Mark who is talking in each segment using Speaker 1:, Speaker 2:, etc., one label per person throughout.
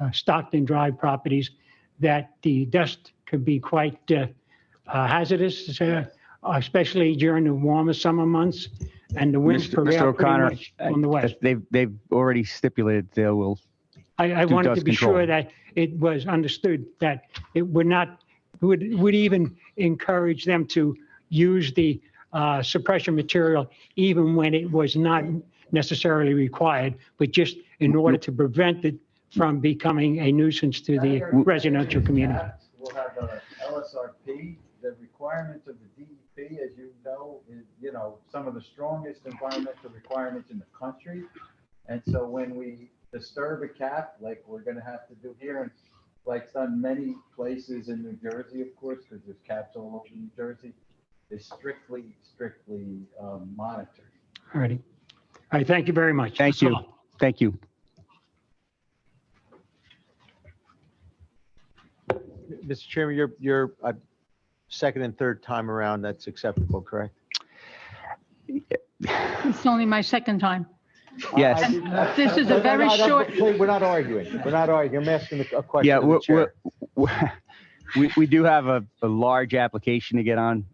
Speaker 1: uh, Stockton Drive properties, that the dust could be quite uh, uh, hazardous, uh, especially during the warmer summer months and the winds
Speaker 2: Mr. Mr.
Speaker 1: prevail pretty
Speaker 2: O'Connor,
Speaker 1: much from the west.
Speaker 2: They've, they've already stipulated they will,
Speaker 1: I, I
Speaker 2: do
Speaker 1: wanted to
Speaker 2: dust
Speaker 1: be sure
Speaker 2: control.
Speaker 1: that it was understood that it would not, would, would even encourage them to use the uh, suppression material even when it was not necessarily required, but just
Speaker 2: Mm-hmm.
Speaker 1: in order to prevent it from becoming a nuisance to the residential community.
Speaker 3: We'll have a LSRP, the requirements of the DEP, as you know, is, you know, some of the strongest environmental requirements in the country. And so when we disturb a cap, like we're gonna have to do here, and like it's done many places in New Jersey, of course, because there's caps all over New Jersey, is strictly, strictly um, monitored.
Speaker 1: All righty. All right, thank you very much.
Speaker 2: Thank
Speaker 1: That's all.
Speaker 2: you. thank you.
Speaker 4: Mr. Chairman, your, your uh, second and third time around, that's acceptable, correct?
Speaker 5: It's only my second time.
Speaker 2: Yes.
Speaker 5: This is a
Speaker 4: No, no,
Speaker 5: very
Speaker 4: no, that's-
Speaker 5: short-
Speaker 4: Please, We're not arguing. We're not arguing. I'm asking a- a question
Speaker 2: Yeah,
Speaker 4: of the
Speaker 2: we're,
Speaker 4: chair.
Speaker 2: we're, we, we do have a, a large application to get on.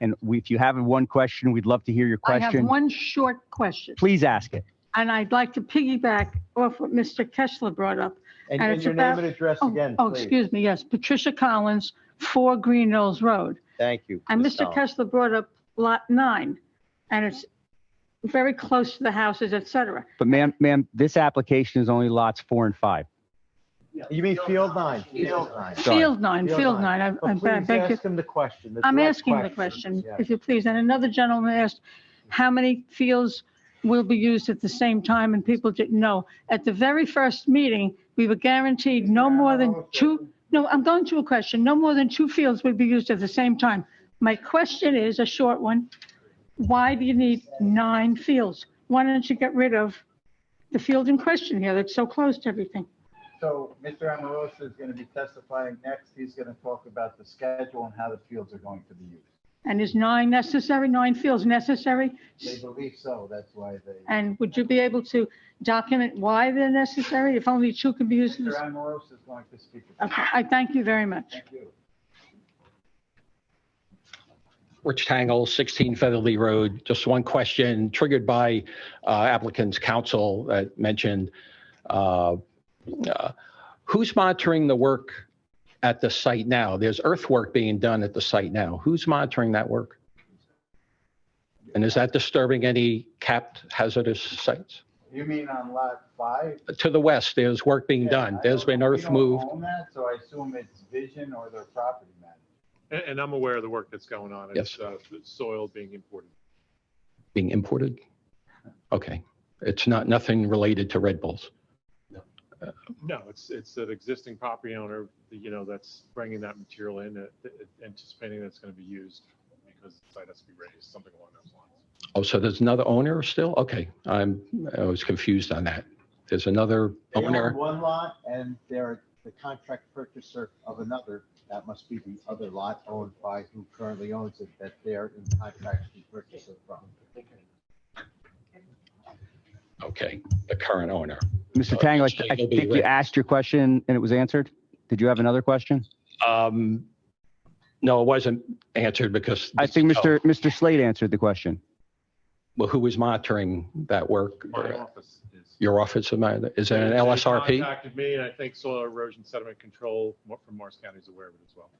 Speaker 2: And we, if you have one question, we'd love to hear your
Speaker 5: I have
Speaker 2: question.
Speaker 5: one short question,
Speaker 2: Please ask it.
Speaker 5: and I'd like to piggyback off what Mr. Kessler brought up.
Speaker 4: And
Speaker 5: and
Speaker 4: and
Speaker 5: it's
Speaker 4: your name
Speaker 5: about-
Speaker 4: and address
Speaker 5: Oh,
Speaker 4: again,
Speaker 5: Oh,
Speaker 4: please.
Speaker 5: excuse me, yes, Patricia Collins, 4 Green Knolls Road.
Speaker 4: Thank you.
Speaker 5: And
Speaker 4: Ms.
Speaker 5: Mr.
Speaker 4: Collins.
Speaker 5: Kessler brought up Lot 9, and it's very close to the houses, et cetera.
Speaker 2: But ma'am, ma'am, this application is only lots four and five.
Speaker 4: You mean Field 9? Field 9.
Speaker 2: Sorry.
Speaker 5: Field 9,
Speaker 4: Field
Speaker 5: Field
Speaker 4: nine.
Speaker 5: 9, I- I
Speaker 4: But
Speaker 5: beg
Speaker 4: please
Speaker 5: beg you.
Speaker 4: ask him the question. the
Speaker 5: I'm
Speaker 4: direct
Speaker 5: asking the question,
Speaker 4: Yeah.
Speaker 5: if you please. And another gentleman asked, how many fields will be used at the same time? And people didn't know. At the very first meeting, we were guaranteed no more than two, no, I'm going to a question, no more than two fields would be used at the same time. My question is a short one. Why do you need nine fields? Why don't you get rid of the field in question here that's so close to everything?
Speaker 3: So Mr. Amoroso is going to be testifying next. He's going to talk about the schedule and how the fields are going to be used.
Speaker 5: And is nine necessary, nine fields necessary?
Speaker 3: They believe so, that's why they.
Speaker 5: And would you be able to document why they're necessary, if only two can be used? in
Speaker 3: Mr.
Speaker 5: this-
Speaker 3: Amoroso is going to speak. about
Speaker 5: Okay, I thank you very much.
Speaker 3: it. Thank you.
Speaker 6: Rich Tangle, 16 Featherly Road. Just one question triggered by uh, applicant's counsel that mentioned, uh, uh, who's monitoring the work at the site now? There's earthwork being done at the site now. Who's monitoring that work? And is that disturbing any capped hazardous sites?
Speaker 3: You mean on lot five?
Speaker 6: To the west, there's work being
Speaker 3: Yeah,
Speaker 6: done.
Speaker 3: I
Speaker 6: There's
Speaker 3: don't-
Speaker 6: been
Speaker 3: we
Speaker 6: earth
Speaker 3: don't
Speaker 6: moved.
Speaker 3: own that, So I assume it's Vision or their property manager.
Speaker 7: And, and I'm aware of the work that's going on.
Speaker 6: Yes.
Speaker 7: It's, uh, the soil being imported.
Speaker 6: being imported? Okay, it's not, nothing related to Red Bulls.
Speaker 7: No, it's, it's an existing property owner, you know, that's bringing that material in, uh, anticipating that's going to be used because the site has to be raised, something along those lines.
Speaker 6: Oh, so there's another owner still? Okay, I'm, I was confused on that. There's another
Speaker 3: They own
Speaker 6: owner.
Speaker 3: one lot and they're the contract purchaser of another. That must be the other lot owned by who currently owns it that they're in contract to purchase it from.
Speaker 6: Okay, the current owner.
Speaker 2: Mr. Tango, I I
Speaker 6: It'll be
Speaker 2: think you
Speaker 6: right.
Speaker 2: asked your question and it was answered. Did you have another question?
Speaker 6: Um, no, it wasn't answered because.
Speaker 2: I think Mr. Mr. Slade answered the question.
Speaker 6: Well, who was monitoring that work?
Speaker 7: My office is.
Speaker 6: Your office, am I- is it an
Speaker 7: They
Speaker 6: LSRP?
Speaker 7: Contacted me and I think soil erosion sediment control mo- from Morris County is aware of it as well.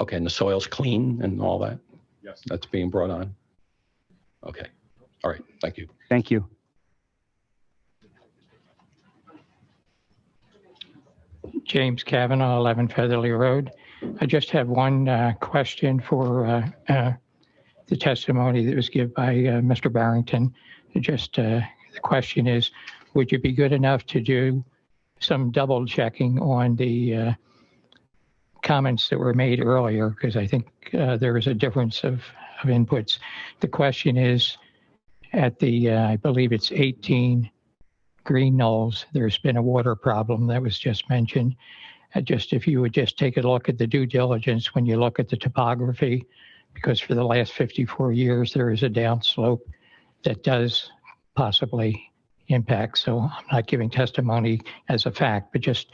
Speaker 6: Okay, and the soil's clean and all that,
Speaker 7: Yes.
Speaker 6: that's being brought on? Okay, all right, thank you.
Speaker 2: Thank you.
Speaker 8: James Kavanaugh, 11 Featherly Road. I just have one uh, question for uh, uh, the testimony that was given by uh, Mr. Barrington. Just uh, the question is, would you be good enough to do some double checking on the uh, comments that were made earlier? Because I think uh, there is a difference of, of inputs. The question is, at the, uh, I believe it's 18 Green Knolls, there's been a water problem that was just mentioned. Uh, Just if you would just take a look at the due diligence when you look at the topography, because for the last 54 years, there is a downslope that does possibly impact. So I'm not giving testimony as a fact, but just